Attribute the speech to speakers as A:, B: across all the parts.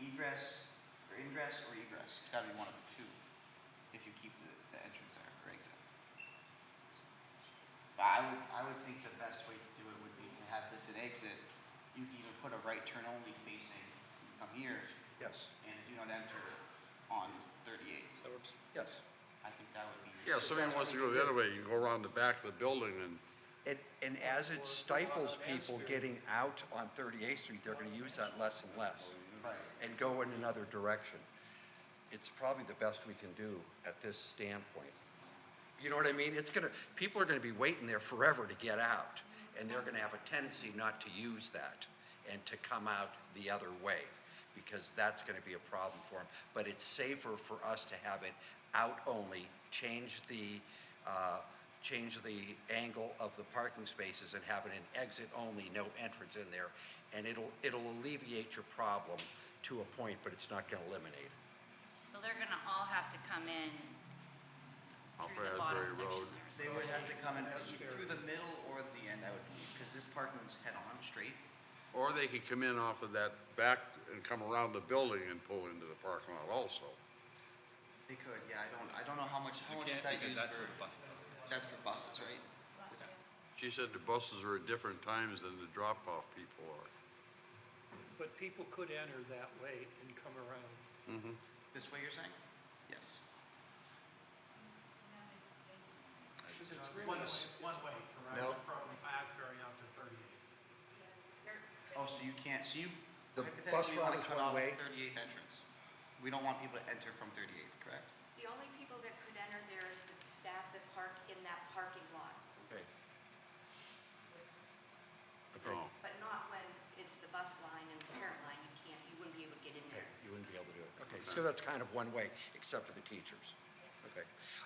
A: egress, or ingress or egress, it's gotta be one of the two, if you keep the, the entrance there or exit. But I would, I would think the best way to do it would be to have this an exit, you can either put a right turn only facing, you come here,
B: Yes,
A: and do not enter on thirty-eighth.
C: That works.
B: yes.
A: I think that would be.
D: Yeah, if somebody wants to go the other way, you can go around the back of the building and,
B: And, and as it stifles people getting out on 38th Street, they're going to use that less and less
A: Right.
B: and go in another direction. It's probably the best we can do at this standpoint. You know what I mean? It's going to, people are going to be waiting there forever to get out, and they're going to have a tendency not to use that and to come out the other way, because that's going to be a problem for them. But it's safer for us to have it out only, change the, uh, change the angle of the parking spaces and have it an exit only, no entrance in there, and it'll, it'll alleviate your problem to a point, but it's not going to eliminate it.
E: So they're gonna all have to come in
D: Off
E: through
D: Asbury
E: the bottom section
D: Road.
A: They
E: there.
A: would have to come in through the middle or the end, I would, because this parking's head-on, straight.
D: or they could come in off of that back and come around the building and pull into the parking lot also.
A: They could, yeah, I don't, I don't know how much, how
C: We
A: much is
C: can't
A: that
C: because
A: used
C: that's where
A: for?
C: the buses are.
A: That's for buses, right?
D: She said the buses are at different times than the drop-off people are.
F: But people could enter that way and come around.
A: This way you're saying? Yes.
G: It's one, one way,
B: No.
G: correct, from Asbury out to 38.
A: Oh, so you can't, so you
B: The bus
A: hypothetically
B: route
A: want to
B: is
A: cut
B: one
A: off
B: way?
A: 38th entrance. We don't want people to enter from 38th, correct?
H: The only people that could enter there is the staff that park in that parking lot,
B: Okay. Okay,
D: Oh.
H: but not when it's the bus line and the parent line, you can't, you wouldn't be able to get in
B: okay,
H: there.
B: you wouldn't be able to do it. Okay, so that's kind of one way, except for the teachers. Okay.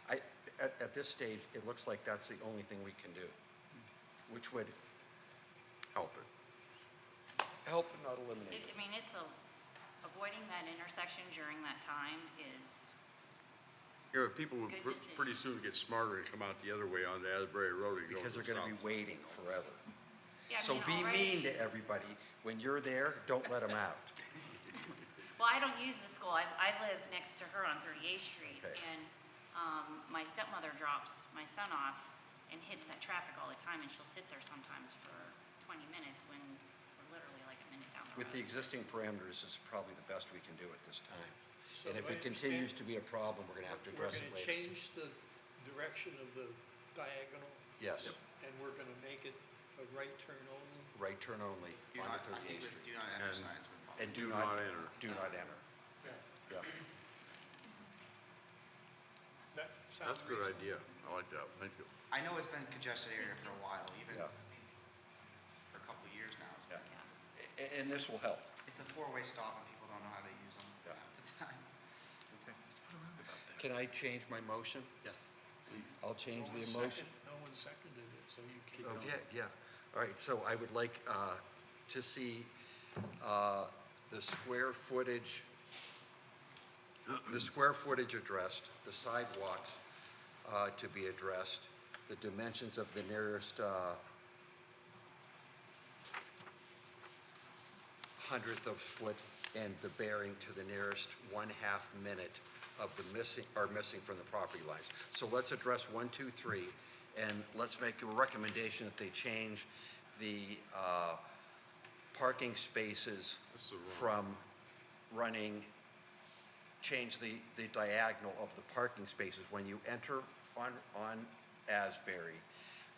B: I, at, at this stage, it looks like that's the only thing we can do, which would
D: Help it.
B: help and not eliminate.
E: It,
B: it.
E: I mean, it's a, avoiding that intersection during that time is,
D: Here, people would
E: Good
D: pr-
E: decision.
D: pretty soon get smarter and come out the other way onto Asbury Road and go to
B: Because
D: the
B: they're
D: stop.
B: gonna be waiting forever.
E: yeah, I
B: So
E: mean,
B: be mean
E: already.
B: to everybody. When you're there, don't let them out.
E: Well, I don't use the school. I, I live next to her on 38th Street.
B: Okay.
E: And, um, my stepmother drops my son off and hits that traffic all the time. And she'll sit there sometimes for 20 minutes when we're literally like a minute down the road.
B: With the existing parameters is probably the best we can do at this time. And
F: So
B: if
F: do I
B: it continues to be
F: understand-
B: a problem, we're gonna have to
F: We're
B: address
F: gonna
B: it later.
F: change the direction of the diagonal,
B: Yes,
F: and we're gonna make it a right turn only.
B: right turn only
A: Do
B: on
A: not,
B: the
A: I think
B: 38th
A: with
B: Street.
A: do not enter
D: And-
A: signs would probably.
B: And do
D: Do
B: not,
D: not enter.
B: do not enter,
F: Yeah.
B: yeah.
F: Does that sound
D: That's a good
F: reasonable?
D: idea. I like that. Thank you.
A: I know it's been congested area for a while, even
B: Yeah.
A: for a couple of years now. It's been-
B: A-
E: Yeah.
B: a- And this will help.
A: It's a four-way stop and people don't know how to use them
B: Yeah.
A: half the time.
B: Can I change my motion?
C: Yes.
B: I'll change
F: No
B: the
F: one
B: motion.
F: second- No one seconded it, so you can.
B: Oh, yeah, yeah. All right, so I would like uh, to see uh, the square footage, the square footage addressed, the sidewalks uh, to be addressed, the dimensions of the nearest uh, hundredth of foot and the bearing to the nearest one-half minute of the missing, are missing from the property lines. So let's address one, two, three, and let's make a recommendation that they change the uh, parking spaces
D: That's the wrong-
B: from running, change the, the diagonal of the parking spaces. When you enter on, on Asbury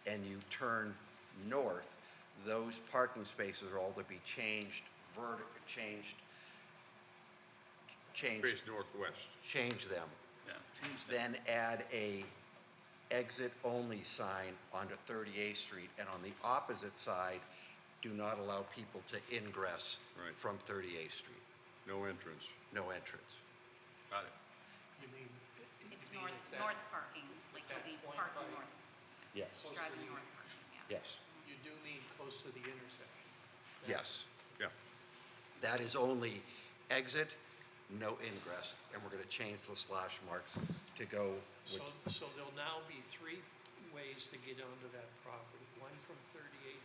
B: and you turn north, those parking spaces are all to be changed verti, changed, changed,
D: Face northwest.
B: change them.
C: Yeah, change that.
B: Then add a exit-only sign onto 38th Street, and on the opposite side, do not allow people to ingress
D: Right.
B: from 38th Street.
D: No entrance.
B: No entrance.
C: Got it.
F: You mean. you
E: It's
F: mean
E: north,
F: at that-
E: north parking, like
F: that
E: you'll be
F: point
E: parking
F: by-
E: north,
B: Yes,
E: driving north parking, yeah.
B: yes,
F: You do mean close to the intersection.
B: yes.
D: Yeah.
B: That is only exit, no ingress, and we're going to change the slash marks to go with
F: So, so there'll now be three ways to get onto that property, one from 38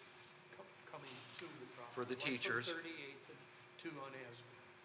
F: co- coming to the property.
B: For the teachers.
F: One from 38 and two on Asbury.